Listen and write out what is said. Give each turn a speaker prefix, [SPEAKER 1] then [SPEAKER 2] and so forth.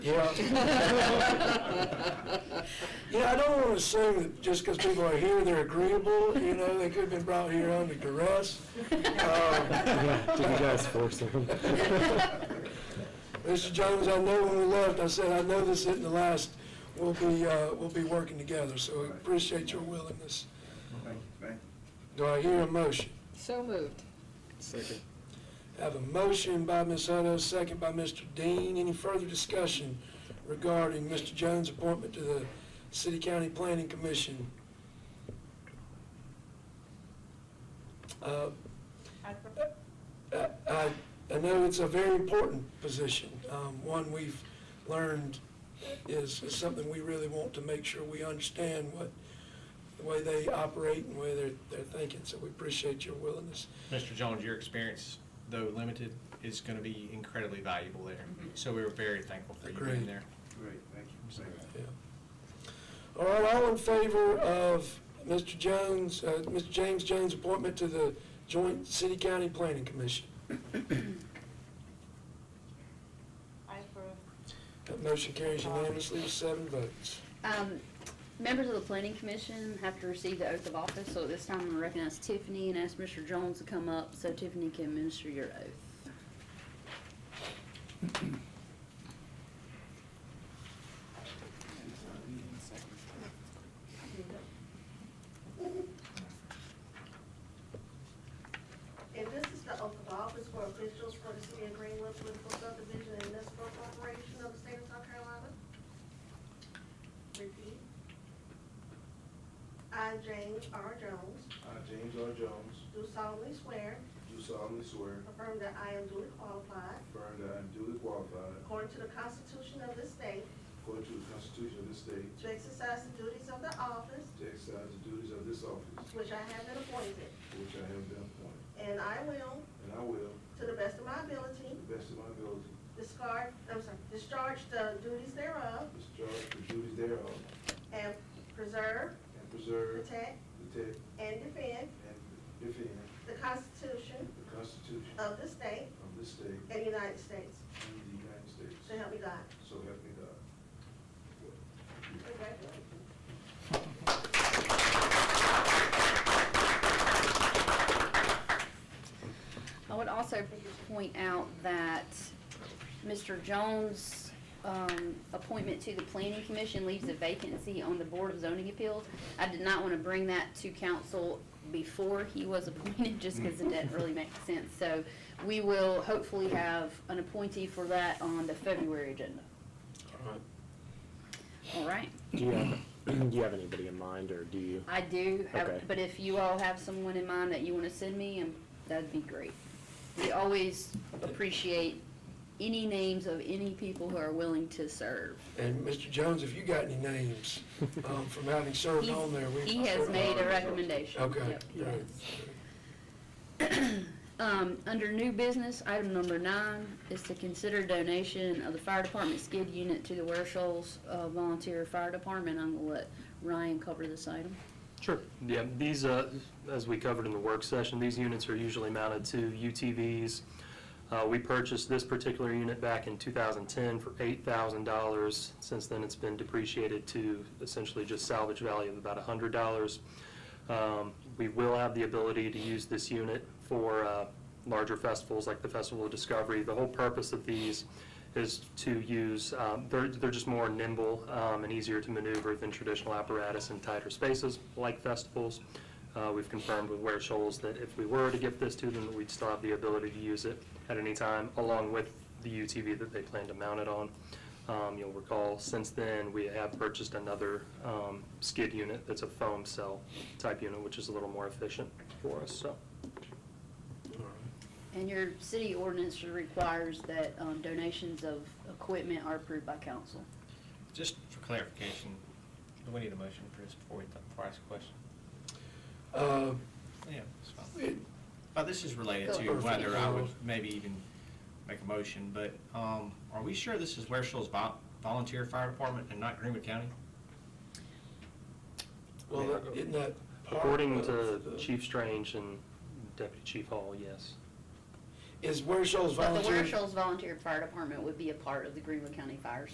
[SPEAKER 1] Yeah. Yeah, I don't want to assume that just because people are here, they're agreeable, you know, they could have been brought here under duress. Um,
[SPEAKER 2] Yeah, didn't guys force them?
[SPEAKER 1] Mr. Jones, I know when we left, I said, I know this isn't the last, we'll be, uh, we'll be working together, so we appreciate your willingness. Do I hear a motion?
[SPEAKER 3] So moved.
[SPEAKER 2] Second.
[SPEAKER 1] Have a motion by Ms. Hutto, second by Mr. Dean. Any further discussion regarding Mr. Jones' appointment to the City County Planning Commission? Uh, I I- I know it's a very important position, um, one we've learned is is something we really want to make sure we understand what, the way they operate and the way they're they're thinking, so we appreciate your willingness.
[SPEAKER 4] Mr. Jones, your experience, though limited, is going to be incredibly valuable there.
[SPEAKER 5] Mm-hmm.
[SPEAKER 4] So we were very thankful for you
[SPEAKER 1] Agreed.
[SPEAKER 4] being there.
[SPEAKER 6] Great, thank you.
[SPEAKER 1] Yeah. All right, all in favor of Mr. Jones, uh, Mr. James Jones' appointment to the Joint City County Planning Commission?
[SPEAKER 7] I approve.
[SPEAKER 1] That motion carries unanimously with seven votes.
[SPEAKER 5] Um, Members of the Planning Commission have to receive the oath of office, so at this time I'm going to recognize Tiffany and ask Mr. Jones to come up so Tiffany can administer your oath.
[SPEAKER 7] And this is the oath of office for officials for the city of Greenwood Political Subdivision and Municipal Corporation of the state of South Carolina. Repeat. I, James R. Jones,
[SPEAKER 6] I, Uh, James R. Jones,
[SPEAKER 7] do solemnly swear,
[SPEAKER 6] do solemnly swear,
[SPEAKER 7] affirm that I am duly qualified,
[SPEAKER 6] affirm that I am duly qualified,
[SPEAKER 7] according to the Constitution of this state,
[SPEAKER 6] according to the Constitution of this state,
[SPEAKER 7] to exercise the duties of the office
[SPEAKER 6] to exercise the duties of this office,
[SPEAKER 7] to which I have been appointed,
[SPEAKER 6] for which I have been appointed,
[SPEAKER 7] and I will,
[SPEAKER 6] and I will,
[SPEAKER 7] to the best of my
[SPEAKER 6] to
[SPEAKER 7] ability,
[SPEAKER 6] the best of my ability,
[SPEAKER 7] discard, I'm sorry, discharge the duties thereof,
[SPEAKER 6] discharge the duties thereof,
[SPEAKER 7] and preserve,
[SPEAKER 6] and preserve,
[SPEAKER 7] protect,
[SPEAKER 6] protect,
[SPEAKER 7] and defend
[SPEAKER 6] and defend
[SPEAKER 7] the Constitution
[SPEAKER 6] the Constitution
[SPEAKER 7] of the state
[SPEAKER 6] of this state
[SPEAKER 7] and the United States.
[SPEAKER 6] and the United
[SPEAKER 7] So
[SPEAKER 6] States.
[SPEAKER 7] help me God.
[SPEAKER 6] So help me God.
[SPEAKER 7] Congratulations.
[SPEAKER 5] I would also point out that Mr. Jones' um, appointment to the Planning Commission leaves a vacancy on the Board of Zoning Appeals. I did not want to bring that to council before he was appointed, just because it didn't really make sense. So we will hopefully have an appointee for that on the February agenda.
[SPEAKER 1] All right.
[SPEAKER 5] All right?
[SPEAKER 2] Do you have, do you have anybody in mind, or do you?
[SPEAKER 5] I do, have-
[SPEAKER 2] Okay.
[SPEAKER 5] but if you all have someone in mind that you want to send me, um, that'd be great. We always appreciate any names of any people who are willing to serve.
[SPEAKER 1] And Mr. Jones, if you got any names um, from having served
[SPEAKER 5] He's-
[SPEAKER 1] on there, we...
[SPEAKER 5] He has made a recommendation.
[SPEAKER 1] Okay,
[SPEAKER 5] Yep, he
[SPEAKER 1] great.
[SPEAKER 5] has. Um, under new business, item number nine is to consider donation of the fire department skid unit to the Ware Shoals uh, Volunteer Fire Department. I'm gonna let Ryan cover this item.
[SPEAKER 8] Sure, yeah, these, uh, as we covered in the work session, these units are usually mounted to UTVs. Uh, We purchased this particular unit back in 2010 for $8,000. Since then, it's been depreciated to essentially just salvage value of about $100. Um, We will have the ability to use this unit for uh, larger festivals like the Festival of Discovery. The whole purpose of these is to use, um, they're they're just more nimble um, and easier to maneuver than traditional apparatus in tighter spaces like festivals. Uh, We've confirmed with Ware Shoals that if we were to give this to them, we'd still have the ability to use it at any time, along with the UTV that they plan to mount it on. Um, You'll recall, since then, we have purchased another um, skid unit that's a foam cell type unit, which is a little more efficient for us, so.
[SPEAKER 5] And your city ordinance requires that um, donations of equipment are approved by council.
[SPEAKER 4] Just for clarification, do we need a motion for this before we, before I ask a question?
[SPEAKER 1] Uh,
[SPEAKER 4] Yeah, it's fine.
[SPEAKER 1] it-
[SPEAKER 4] But this is related
[SPEAKER 5] Go
[SPEAKER 4] to
[SPEAKER 5] ahead.
[SPEAKER 4] whether I would maybe even make a motion, but um, are we sure this is Ware Shoals Vol- Volunteer Fire Department and not Greenwood County?
[SPEAKER 1] Well, that- isn't that part
[SPEAKER 8] According
[SPEAKER 1] of
[SPEAKER 8] to
[SPEAKER 1] the-
[SPEAKER 8] Chief Strange and Deputy Chief Hall, yes.
[SPEAKER 1] Is Ware Shoals
[SPEAKER 5] But the
[SPEAKER 1] volunteer?
[SPEAKER 5] Ware Shoals Volunteer Fire Department would be a part of the Greenwood County Fire